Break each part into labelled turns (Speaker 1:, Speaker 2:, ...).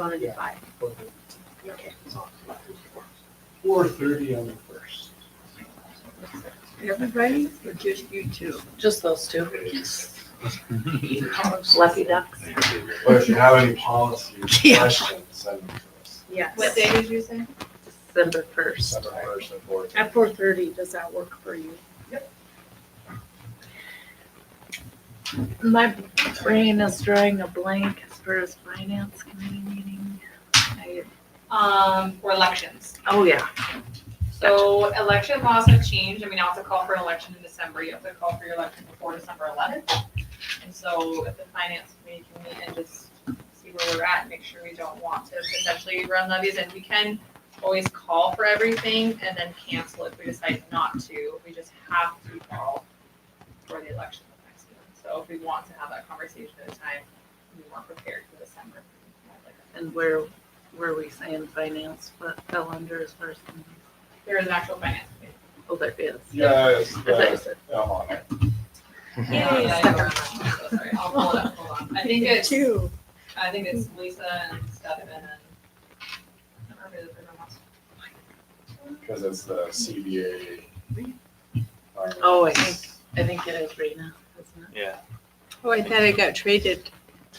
Speaker 1: bonded by.
Speaker 2: Four thirty on the first.
Speaker 1: Everybody or just you two?
Speaker 3: Just those two.
Speaker 1: Lucky ducks.
Speaker 2: But if you have any policy
Speaker 3: Yeah.
Speaker 2: questions, send them to us.
Speaker 1: Yes.
Speaker 4: What day did you say?
Speaker 3: December first.
Speaker 2: December first and fourth.
Speaker 1: At four thirty, does that work for you?
Speaker 3: My brain is drawing a blank as far as finance committee meeting. I-
Speaker 4: Um, for elections.
Speaker 3: Oh, yeah.
Speaker 4: So election laws have changed. I mean, now it's a call for an election in December. You have to call for your election before December eleventh. And so if the finance committee can meet and just see where we're at, make sure we don't want to potentially run levies. And we can always call for everything and then cancel if we decide not to. We just have to call for the election the next month. So if we want to have that conversation at a time, we weren't prepared for December.
Speaker 3: And where, were we saying finance, what fell under as far as,
Speaker 4: There is an actual finance committee.
Speaker 3: oh, there is.
Speaker 2: Yes,
Speaker 3: I thought you said-
Speaker 2: I'm on it.
Speaker 4: Yeah, yeah, yeah, I'm so sorry. I'll pull it up, hold on. I think it's,
Speaker 1: Two.
Speaker 4: I think it's Lisa and Stefan and. I don't remember the other ones.
Speaker 2: Cause it's the CBA.
Speaker 3: Oh, I think- I think it is right now, isn't it?
Speaker 1: Oh, I thought I got traded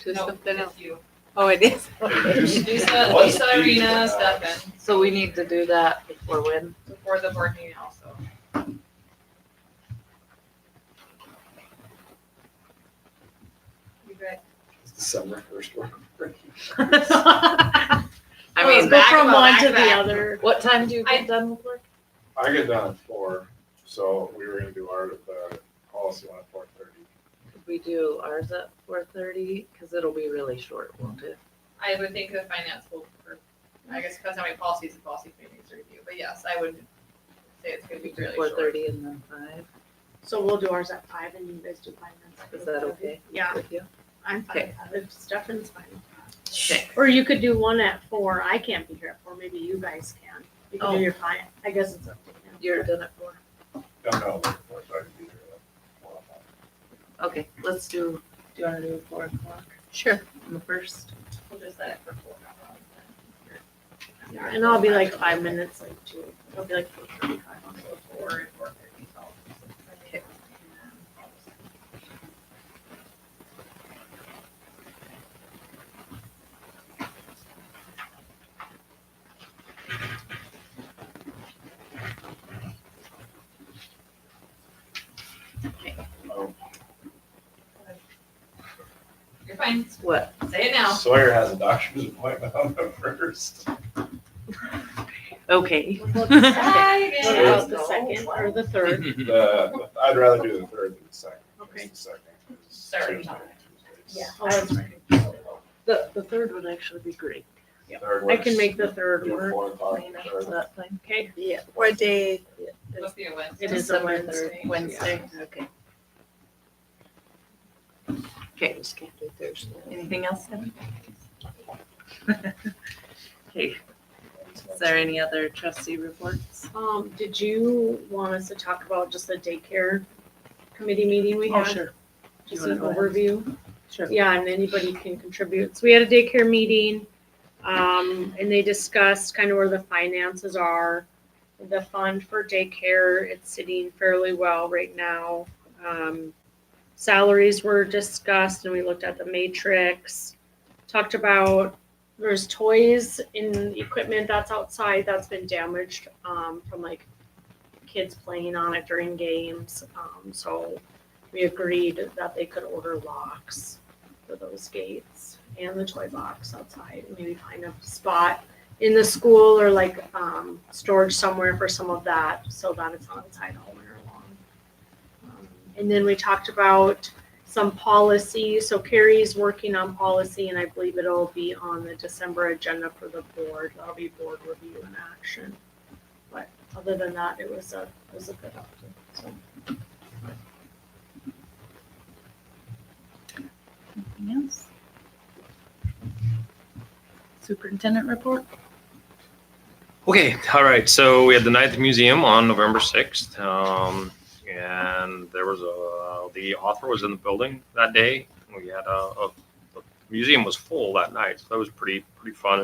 Speaker 1: to
Speaker 4: No,
Speaker 1: something
Speaker 4: it's
Speaker 1: else.
Speaker 4: you.
Speaker 1: Oh, it is?
Speaker 2: It
Speaker 4: Lisa,
Speaker 2: What's
Speaker 4: Lisa, Irina,
Speaker 2: the-
Speaker 4: Stefan,
Speaker 3: So we need to do that before when?
Speaker 4: before the board meeting also. You guys,
Speaker 2: It's December first.
Speaker 3: I
Speaker 4: Well,
Speaker 3: mean,
Speaker 4: it's
Speaker 1: Um,
Speaker 4: been
Speaker 3: back
Speaker 4: from
Speaker 3: about
Speaker 4: one
Speaker 3: back
Speaker 4: to the
Speaker 3: back.
Speaker 1: other.
Speaker 3: What time do you
Speaker 4: I-
Speaker 3: get done with work?
Speaker 2: I get done at four, so we were gonna do our, the policy one at four thirty.
Speaker 3: Could we do ours at four thirty? Cause it'll be really short, won't it?
Speaker 4: I would think the finance will, or, I guess depends how many policies the policy committee needs to review, but yes, I would say it's gonna be really
Speaker 3: Four
Speaker 4: short.
Speaker 3: thirty and then five,
Speaker 1: So we'll do ours at five and you guys do finance.
Speaker 3: is that okay
Speaker 1: Yeah,
Speaker 3: with you?
Speaker 1: I'm fine.
Speaker 3: Okay.
Speaker 1: with that, If Stefan's fine. with that.
Speaker 3: Okay.
Speaker 1: Or you could do one at four. I can't be here at four. Maybe you guys can. You can
Speaker 3: Oh.
Speaker 1: do your fine. I guess it's up to you.
Speaker 3: You're done at four?
Speaker 2: No, no, like four thirty. be here at four o'clock.
Speaker 3: Okay, let's do, do you wanna do four o'clock
Speaker 1: Sure.
Speaker 3: on the first?
Speaker 4: We'll just set it for four hours then.
Speaker 1: And I'll be like five minutes late too. It'll be like four thirty-five.
Speaker 4: Or if we're thirty, so. Okay.
Speaker 2: Oh,
Speaker 4: You're fine,
Speaker 3: What?
Speaker 4: say it now.
Speaker 2: Sawyer has a doctor's appointment on the first.
Speaker 3: Okay.
Speaker 1: What about the
Speaker 4: No.
Speaker 1: second or the third?
Speaker 2: The, I'd rather do the third than the second.
Speaker 1: Okay.
Speaker 2: The second is
Speaker 4: Third.
Speaker 2: Tuesday,
Speaker 1: Yeah.
Speaker 2: Tuesdays.
Speaker 1: Oh, that's right.
Speaker 3: The, the third would actually be great.
Speaker 2: Third
Speaker 1: I
Speaker 2: works.
Speaker 1: can make the third
Speaker 2: Either
Speaker 1: work.
Speaker 2: Four o'clock,
Speaker 3: Is
Speaker 2: third.
Speaker 3: that fine?
Speaker 1: Okay.
Speaker 3: Yeah.
Speaker 1: What day?
Speaker 4: Must be a Wednesday.
Speaker 1: It is a Wednesday.
Speaker 3: Wednesday, okay. Okay. Anything else, Kevin? Okay, is there any other trustee reports?
Speaker 1: Um, did you want us to talk about just the daycare committee meeting we had?
Speaker 3: Oh, sure.
Speaker 1: Just
Speaker 3: You
Speaker 1: an
Speaker 3: wanna go ahead?
Speaker 1: overview?
Speaker 3: Sure.
Speaker 1: Yeah, and anybody can contribute. So we had a daycare meeting, um, and they discussed kind of where the finances are. The fund for daycare, it's sitting fairly well right now. Um, salaries were discussed and we looked at the matrix. Talked about, there's toys and equipment that's outside that's been damaged, um, from like kids playing on it during games. Um, so we agreed that they could order locks for those gates and the toy box outside, and maybe find a spot in the school or like um, storage somewhere for some of that so that it's not outside all winter long. Um, and then we talked about some policy. So Carrie's working on policy, and I believe it'll be on the December agenda for the board. That'll be board review and action. But other than that, it was a it was a good update. So.
Speaker 3: Anything else? Superintendent report?
Speaker 5: Okay, all right. So we had the Night at the Museum on November 6th. Um, and there was a, the author was in the building that day. We had a, a, a museum was full that night, so that was pretty pretty fun